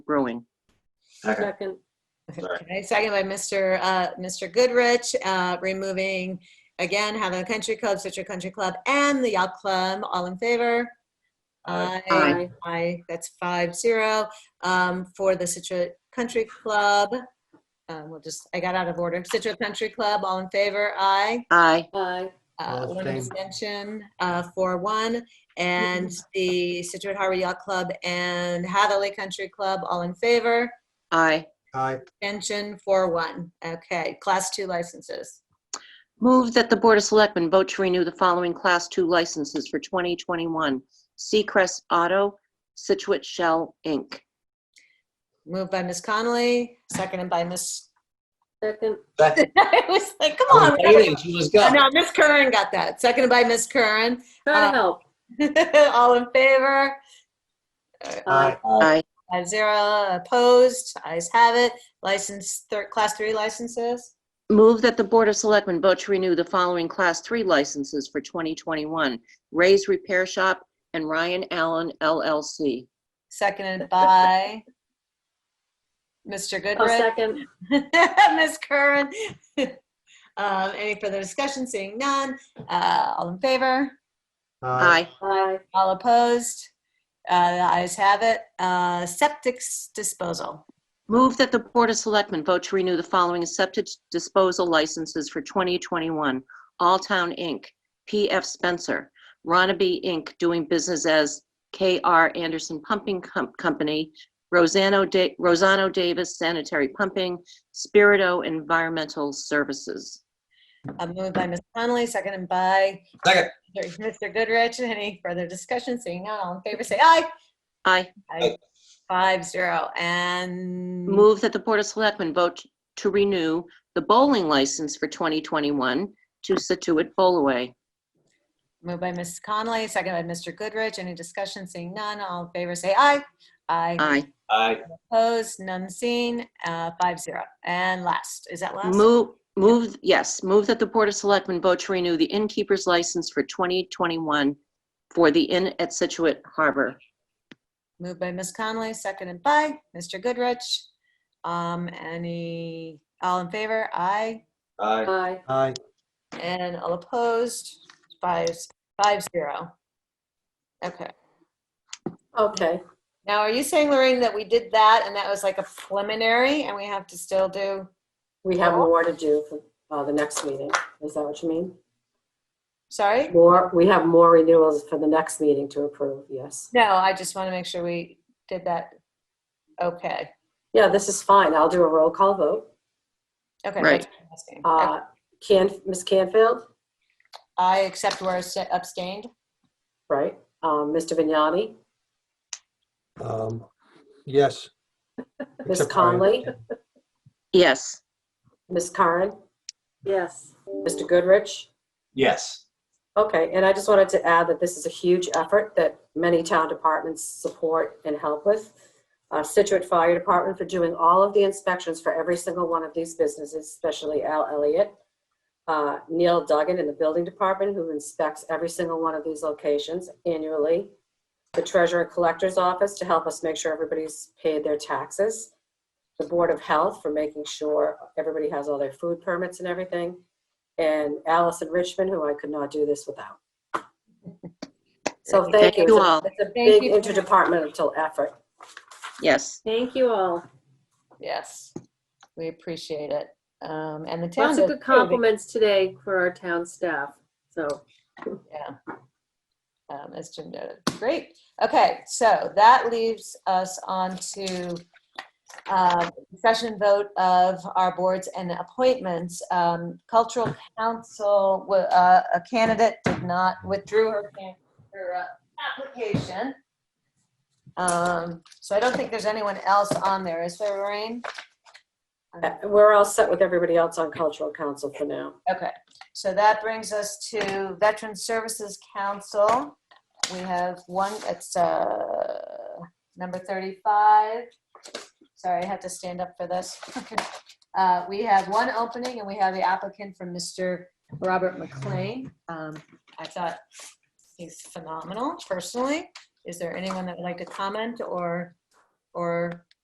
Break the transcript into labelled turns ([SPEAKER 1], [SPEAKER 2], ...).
[SPEAKER 1] Brewing.
[SPEAKER 2] Second.
[SPEAKER 3] Second,
[SPEAKER 4] Okay, second by Mr. Uh, Mr. Goodrich, uh, removing again Havana Country Club, Citrus Country Club, and the Yacht Club. All in favor?
[SPEAKER 2] Aye.
[SPEAKER 4] Aye. Aye. That's five zero um, for the Citrus Country Club. Um, we'll just I got out of order. Citrus Country Club. All in favor? Aye.
[SPEAKER 1] Aye.
[SPEAKER 3] aye,
[SPEAKER 4] Uh,
[SPEAKER 5] I'll
[SPEAKER 4] one
[SPEAKER 5] abstain.
[SPEAKER 4] abstention. Uh, four one. And the Citrus Harbor Yacht Club and Hathaway Country Club. All in favor?
[SPEAKER 1] Aye.
[SPEAKER 5] Aye,
[SPEAKER 4] Abstention four one. Okay, class two licenses.
[SPEAKER 1] Move that the Board of Selectmen vote to renew the following Class II licenses for 2021. Seacrest Auto, Situate Shell, Inc.
[SPEAKER 4] Moved by Ms. Connolly, seconded by Ms.
[SPEAKER 3] second,
[SPEAKER 2] Second.
[SPEAKER 4] I was like, come
[SPEAKER 2] I
[SPEAKER 4] on.
[SPEAKER 2] was
[SPEAKER 4] we gotta
[SPEAKER 2] waiting. She was
[SPEAKER 4] go.
[SPEAKER 2] gone.
[SPEAKER 4] No, Ms. Curran got that. Seconded by Ms. Curran.
[SPEAKER 3] try
[SPEAKER 4] Uh,
[SPEAKER 3] to help.
[SPEAKER 4] All in favor?
[SPEAKER 5] aye,
[SPEAKER 1] Aye.
[SPEAKER 4] Five zero opposed. Eyes have it. License, thir- class three licenses.
[SPEAKER 1] Move that the Board of Selectmen vote to renew the following Class III licenses for 2021. Ray's Repair Shop and Ryan Allen LLC.
[SPEAKER 4] Seconded by Mr.
[SPEAKER 3] Oh,
[SPEAKER 4] Goodrich.
[SPEAKER 3] second,
[SPEAKER 4] Ms. Curran. Um, Any further discussion? Seeing none. Uh, All in favor?
[SPEAKER 5] aye,
[SPEAKER 1] Aye.
[SPEAKER 3] aye,
[SPEAKER 4] All opposed? Uh, The ayes have it. Uh, Septic s- disposal.
[SPEAKER 1] Move that the Board of Selectmen vote to renew the following septic disposal licenses for 2021. All Town Inc., P.F. Spencer, Ronaby Inc., doing business as K.R. Anderson Pumping Com- Company, Rosano Da- Rosano Davis Sanitary Pumping, Spirito Environmental Services.
[SPEAKER 4] Uh, Moved by Ms. Connolly, seconded by
[SPEAKER 2] Second.
[SPEAKER 4] Mr. Goodrich. Any further discussion? Seeing none, all in favor, say aye.
[SPEAKER 1] Aye.
[SPEAKER 4] Aye. Five zero. And
[SPEAKER 1] Move that the Board of Selectmen vote to renew the bowling license for 2021 to Situate Bowlaway.
[SPEAKER 4] moved by Ms. Connolly, seconded by Mr. Goodrich. Any discussion? Seeing none, all in favor, say aye. Aye.
[SPEAKER 1] Aye.
[SPEAKER 2] Aye.
[SPEAKER 4] Opposed, none seen, uh, five zero. And last, is that last?
[SPEAKER 1] Move, move, yes, move that the Board of Selectmen vote to renew the innkeeper's license for 2021 for the Inn at Situate Harbor.
[SPEAKER 4] Moved by Ms. Conley, seconded by Mr. Goodrich. Um, any, all in favor? Aye.
[SPEAKER 2] Aye.
[SPEAKER 3] aye,
[SPEAKER 5] aye.
[SPEAKER 4] And all opposed? Five, five zero. Okay.
[SPEAKER 3] okay,
[SPEAKER 4] Now, are you saying, Lorraine, that we did that and that was like a preliminary and we have to still do?
[SPEAKER 6] We have more to do for uh, the next meeting. Is that what you mean?
[SPEAKER 4] Sorry?
[SPEAKER 6] More, we have more renewals for the next meeting to approve, yes.
[SPEAKER 4] No, I just want to make sure we did that. Okay.
[SPEAKER 6] Yeah, this is fine. I'll do a roll call vote.
[SPEAKER 4] Okay.
[SPEAKER 1] Right.
[SPEAKER 4] that's what I'm asking.
[SPEAKER 6] Uh, Can, Ms. Canfield,
[SPEAKER 4] I accept where it's abstained.
[SPEAKER 6] right? Um, Mr. Vignani,
[SPEAKER 5] Um, Yes.
[SPEAKER 6] Ms.
[SPEAKER 5] Except Brian.
[SPEAKER 6] Conley,
[SPEAKER 1] Yes.
[SPEAKER 6] Ms. Karen,
[SPEAKER 3] yes,
[SPEAKER 6] Mr. Goodrich.
[SPEAKER 2] Yes.
[SPEAKER 6] Okay, and I just wanted to add that this is a huge effort that many town departments support and help with. Uh, Situate Fire Department for doing all of the inspections for every single one of these businesses, especially Al Elliott. Uh, Neil Duggan in the Building Department, who inspects every single one of these locations annually. The Treasurer Collector's Office to help us make sure everybody's paid their taxes. The Board of Health for making sure everybody has all their food permits and everything and Allison Richmond, who I could not do this without. So thank you.
[SPEAKER 1] you all.
[SPEAKER 6] It's a
[SPEAKER 4] Thank
[SPEAKER 6] big
[SPEAKER 4] you very much.
[SPEAKER 6] interdepartmental effort.
[SPEAKER 1] Yes.
[SPEAKER 3] thank you all.
[SPEAKER 4] Yes. We appreciate it. Um, and the town.
[SPEAKER 3] Lots of good
[SPEAKER 4] does too, because-
[SPEAKER 3] compliments today for our town staff, so,
[SPEAKER 4] Yeah. Um, As Jim noted. Great. Okay, so that leaves us on to um, discussion vote of our boards and appointments. Um, Cultural Council, wa- uh, a candidate did not, withdrew her can- her uh, application. Um, So I don't think there's anyone else on there, is there, Lorraine?
[SPEAKER 6] Uh, We're all set with everybody else on Cultural Council for now.
[SPEAKER 4] Okay, so that brings us to Veteran Services Council. We have one, it's uh, number 35. Sorry, I had to stand up for this. Uh, We have one opening and we have the applicant from Mr. Robert McLean. Um, I thought he's phenomenal personally. Is there anyone that would like to comment or, or